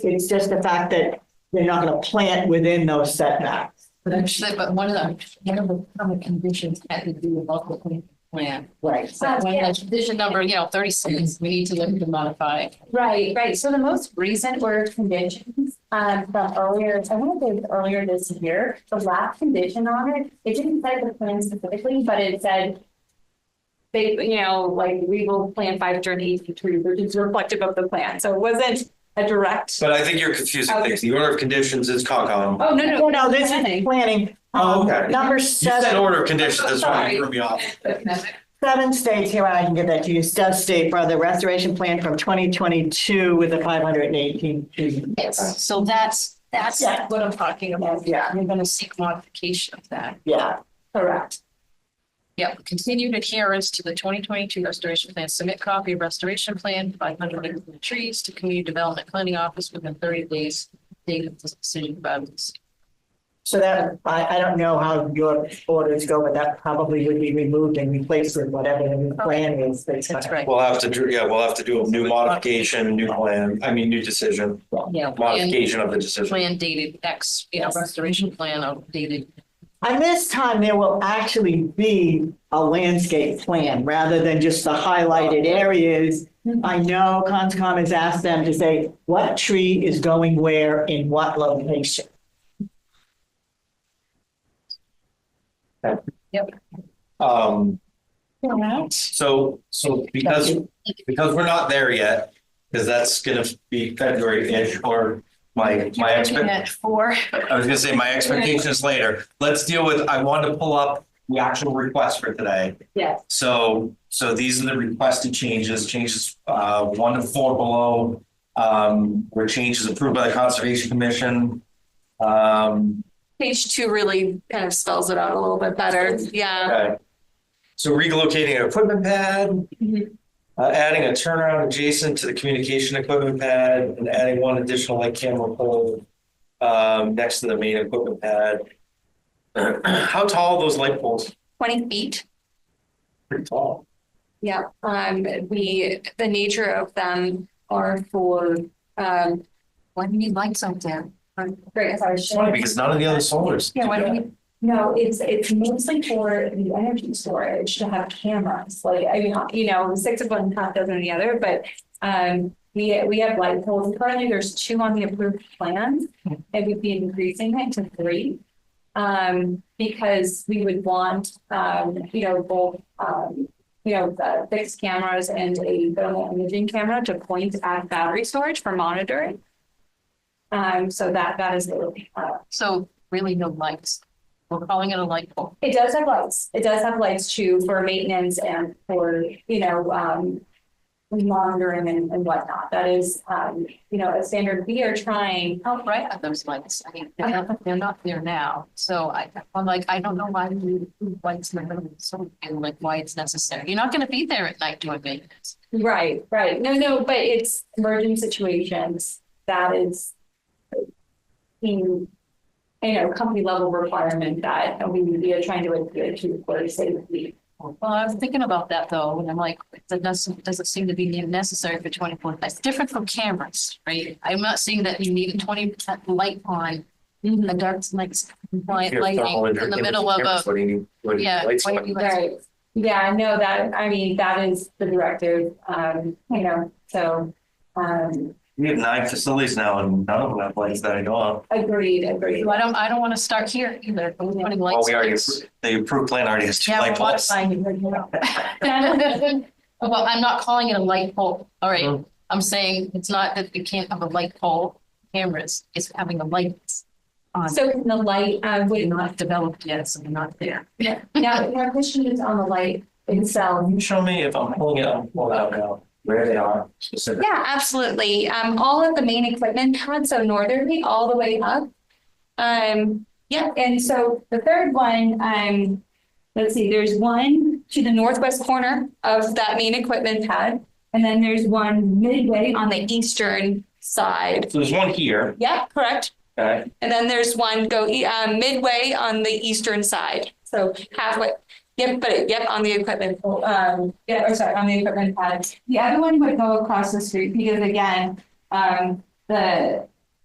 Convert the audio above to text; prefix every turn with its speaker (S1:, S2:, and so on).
S1: It's just the fact that they're not gonna plant within those setbacks.
S2: But actually, but one of the, one of the common conditions had to do with local plan- plan.
S1: Right.
S2: So when the condition number, you know, thirty-six, we need to look to modify.
S3: Right, right. So the most recent were conditions um from earlier, I want to say it was earlier this year, the last condition on it, it didn't say the plan specifically, but it said. They, you know, like we will plan five during eight to which is reflective of the plan. So it wasn't a direct.
S4: But I think you're confusing things. The order of conditions is
S2: Uh,
S4: Concom.
S3: Oh, no,
S1: No,
S3: no.
S1: no, this is
S3: planning.
S1: planning. um,
S4: Oh, okay.
S1: Number
S4: You said
S1: seven,
S4: order of conditions, that's why you threw me off.
S1: seven states here, I can give that to you, Stuff state for the restoration plan from twenty twenty-two with the five hundred and eighteen.
S2: Yes, so that's, that's
S1: Yeah.
S2: what I'm talking about.
S1: Yeah.
S2: We're gonna seek modification of that.
S1: Yeah,
S3: Correct.
S2: Yep, continued adherence to the twenty twenty-two restoration plan, submit copy of restoration plan, five hundred trees to community development planning office within thirty days. Date of this decision by this.
S1: so that, I, I don't know how your orders go, but that probably would be removed and replaced with whatever the new plan is.
S2: That's right.
S4: We'll have to, do- yeah, we'll have to do a new modification, new plan, I mean, new decision,
S2: Yeah. plan-
S4: modification of the decision.
S2: Plan dated X, you know, restoration plan updated.
S1: And this time, there will actually be a landscape plan rather than just the highlighted areas. I know Conscom has asked them to say what tree is going where in what location.
S4: Um, so, so because, because we're not there yet, because that's gonna be February-ish or my, my expectation.
S2: Four.
S4: I was gonna say my expectations later. Let's deal with, I want to pull up the actual request for today.
S3: Yes.
S4: So, so these are the requested changes, changes, uh, one to four below. Um, were changes approved by the Conservation Commission. Um,
S3: Page two really kind of spells it out a little bit better. Yeah.
S4: okay. So relocating an equipment pad.
S3: Mhm.
S4: Uh, adding a turnaround adjacent to the communication equipment pad and adding one additional light camera pole. Um, next to the main equipment pad. How tall are those light poles?
S3: Twenty feet.
S4: pretty tall.
S3: Yeah, um, we, the nature of them are for, um,
S2: Why do you need lights out there?
S3: great, sorry.
S4: It's funny because none of the other solars.
S3: Yeah, why
S4: do
S3: don't
S4: that.
S3: we, no, it's, it's mostly for the energy storage to have cameras, like, I mean, you know, six of one, half dozen of the other, but. Um, we, we have light poles, currently there's two on the approved plans, it would be increasing it to three. Um, because we would want, um, you know, both, um, you know, the fixed cameras and a thermal imaging camera to point at battery storage for monitoring. Um, so that, that is the, uh,
S2: So really no lights. We're calling it a light pole.
S3: it does have lights. It does have lights too for maintenance and for, you know, um. Monitoring and and whatnot. That is, um, you know, a standard. We are trying.
S2: How bright are those lights? I mean, they're not, they're not there now. So I, I'm like, I don't know why we need lights in the middle of the summer and like why it's necessary. You're not gonna be there at night doing maintenance.
S3: Right, right. No, no, but it's emergent situations. That is. In, you know, company level requirement that we we are trying to adhere to for safety.
S2: Well, I was thinking about that though, and I'm like, it doesn't, doesn't seem to be necessary for twenty-four. That's different from cameras, right? I'm not seeing that you need a twenty percent light on, a dark, like compliant
S4: Your thermal
S2: lighting in the
S4: imaging
S2: middle of
S4: cameras,
S2: a,
S4: What do you need? what do you
S2: yeah.
S4: need lights
S2: why
S4: for?
S2: do you like-
S3: Right. Yeah, no, that, I mean, that is the directive, um, you know, so. Um,
S4: We have nine facilities now and none of them have lights that I know of.
S3: Agreed, agreed.
S2: I don't, I don't want to start here either. We're putting
S4: Well,
S2: lights.
S4: we already,
S2: on.
S4: appro- the approved plan already has two
S2: Yeah,
S4: light
S2: we're not
S4: poles.
S2: signing right now. Well, I'm not calling it a light pole. All right.
S4: Mhm.
S2: I'm saying it's not that we can't have a light pole cameras. It's having a light on.
S3: So in the light, uh,
S2: We're
S3: would,
S2: not developed yet, so we're not there.
S3: now, my question is on the light itself.
S4: Can you show me if I'm pulling it, I'm pulling it out now, where they are specifically?
S3: Yeah, absolutely. Um, all of the main equipment pads, so northerly, all the way up. Um, yeah, and so the third one, um, let's see, there's one to the northwest corner of that main equipment pad. And then there's one midway on the eastern side.
S4: So there's one here,
S3: Yeah, correct.
S4: okay?
S3: And then there's one go e- uh, midway on the eastern side, so halfway. Yep, but yep, on the equipment, um, yeah, or sorry, on the equipment pad. The other one would go across the street because again, um, the